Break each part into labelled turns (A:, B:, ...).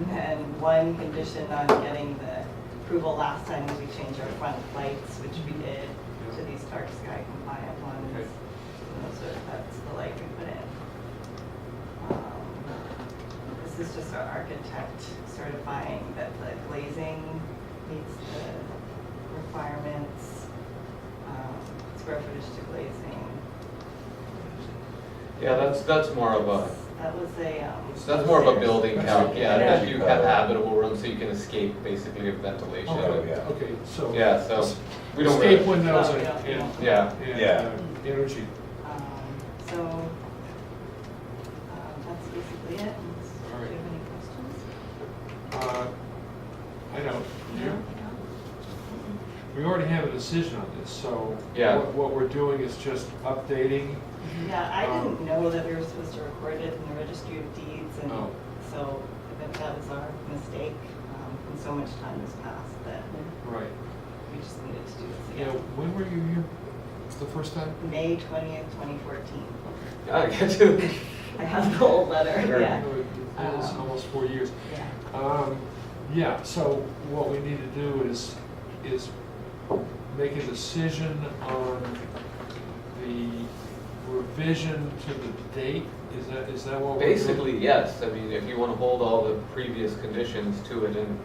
A: Um, one condition on getting the approval last time was we changed our front lights, which we did, to these dark sky compliant ones.
B: Okay.
A: And those are, that's the light we put in. Um, This is just our architect certifying that the glazing meets the requirements, um, square footage to glazing.
B: Yeah, that's, that's more of a,
A: That was a, um.
B: that's more of a building calc, yeah, that you have
C: Yeah.
B: habitable room so you can escape basically of ventilation.
C: Okay. Yeah.
D: Oh, Okay, so.
B: Yeah, so we don't
D: Escape
B: really,
D: windows and,
A: Yeah.
D: and,
B: yeah,
C: Yeah.
D: and uh, energy.
A: Um, So, um, that's basically it. Unless- Do you
D: All right.
A: have any questions?
D: Uh, I don't, you,
A: No?
D: we already have a decision on this, so.
B: Yeah.
D: What, what we're doing is just updating.
A: Yeah, I
D: Um,
A: didn't know that we were supposed to record it in the registry of deeds and
D: Oh.
A: so I think that was our mistake. um, And so much time has passed that
D: Right.
A: we just needed to do this
D: Yeah,
A: again.
D: when were you here the first time?
A: May twentieth, twenty fourteen.
B: I get you.
A: I have the old letter,
B: Sure.
A: yeah.
D: Oh, it- It was
A: Um,
D: almost four years.
A: Yeah.
D: Um, yeah, so what we need to do is, is make a decision on the revision to the date, is that, is that what we're doing?
B: Basically, yes, I mean, if you wanna hold all the previous conditions to it and,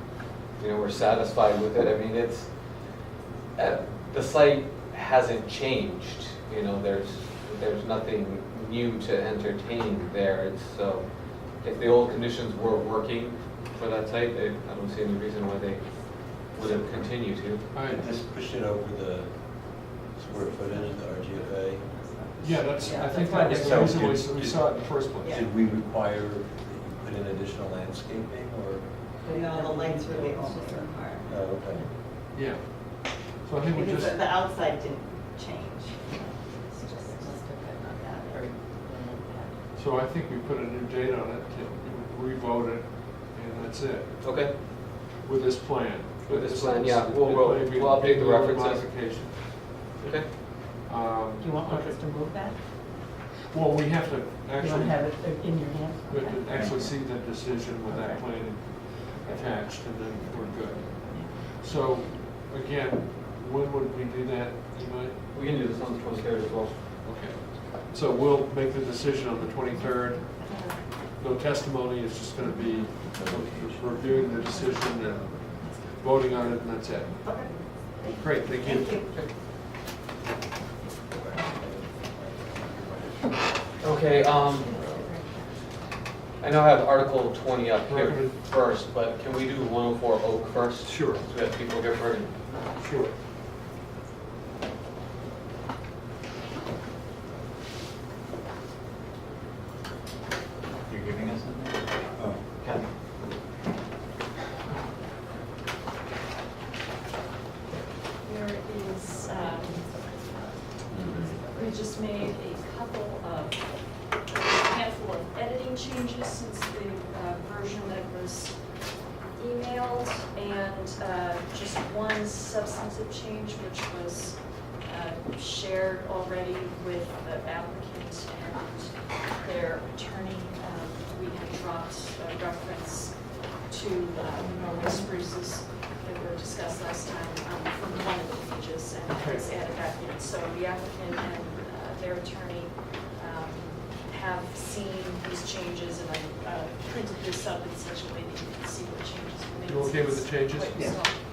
B: you know, we're satisfied with it, I mean, it's, uh, the site hasn't changed, you know, there's, there's nothing new to entertain there, it's, so, if the old conditions were working for that site, they, I don't see any reason why they wouldn't continue to.
D: All right,
C: Just push it over the square footage of the RGFA.
D: yeah, that's, I
A: Yeah,
D: think
A: that's
D: that was the
C: fine.
D: reason
C: So,
D: we- we
C: did-
D: saw it in the first place.
A: Yeah.
C: Did we require that you put in additional landscaping or, uh,
A: But no, the lights were the only requirement.
C: no, okay.
D: Yeah. So I think we
A: Because
D: just,
A: the the outside didn't change. It's just- yeah, or-
D: so I think we put a new date on it, to re-vote it, and that's it,
B: Okay,
D: with this plan.
B: With this plan, yeah, we'll- we'll-
D: It may be-
B: we'll update the
D: maybe a little
B: references.
D: Modification.
B: okay,
D: Um,
E: Do you want
D: okay.
E: us to move that?
D: Well, we have to
E: You don't
D: actually,
E: have it in your hand?
D: we have to
E: Okay.
D: actually see that decision with that
E: Okay.
D: plan attached, and then we're good. So, again, when would we do that, you might?
B: we can do this on the twenty-third as well.
D: Okay. So we'll make the decision on the twenty-third. No testimony, it's just gonna be reviewing the decision and voting on it, and that's it.
A: Okay.
D: Great, thank you.
A: Thank you.
B: Okay, um, I know I have Article 20 up here
D: Recommend-
B: first, but can we do 104 Oak first?
D: Sure.
B: Because we have people here for,
D: Sure.
F: You're giving us something? Okay.
G: There is, um, we just made a couple of, a handful of editing changes since the uh, version that was emailed, and uh, just one substantive change, which was uh, shared already with the applicant and their attorney. Um, We had dropped a reference to uh, Norway spruces that were discussed last time um, from one of the pages, and that was added back in. So the applicant and uh, their attorney um, have seen these changes, and I uh, printed this up in such a way that you can see what changes were made.
D: You okay with the
G: since
D: changes?
G: what you
E: Yeah.
G: saw.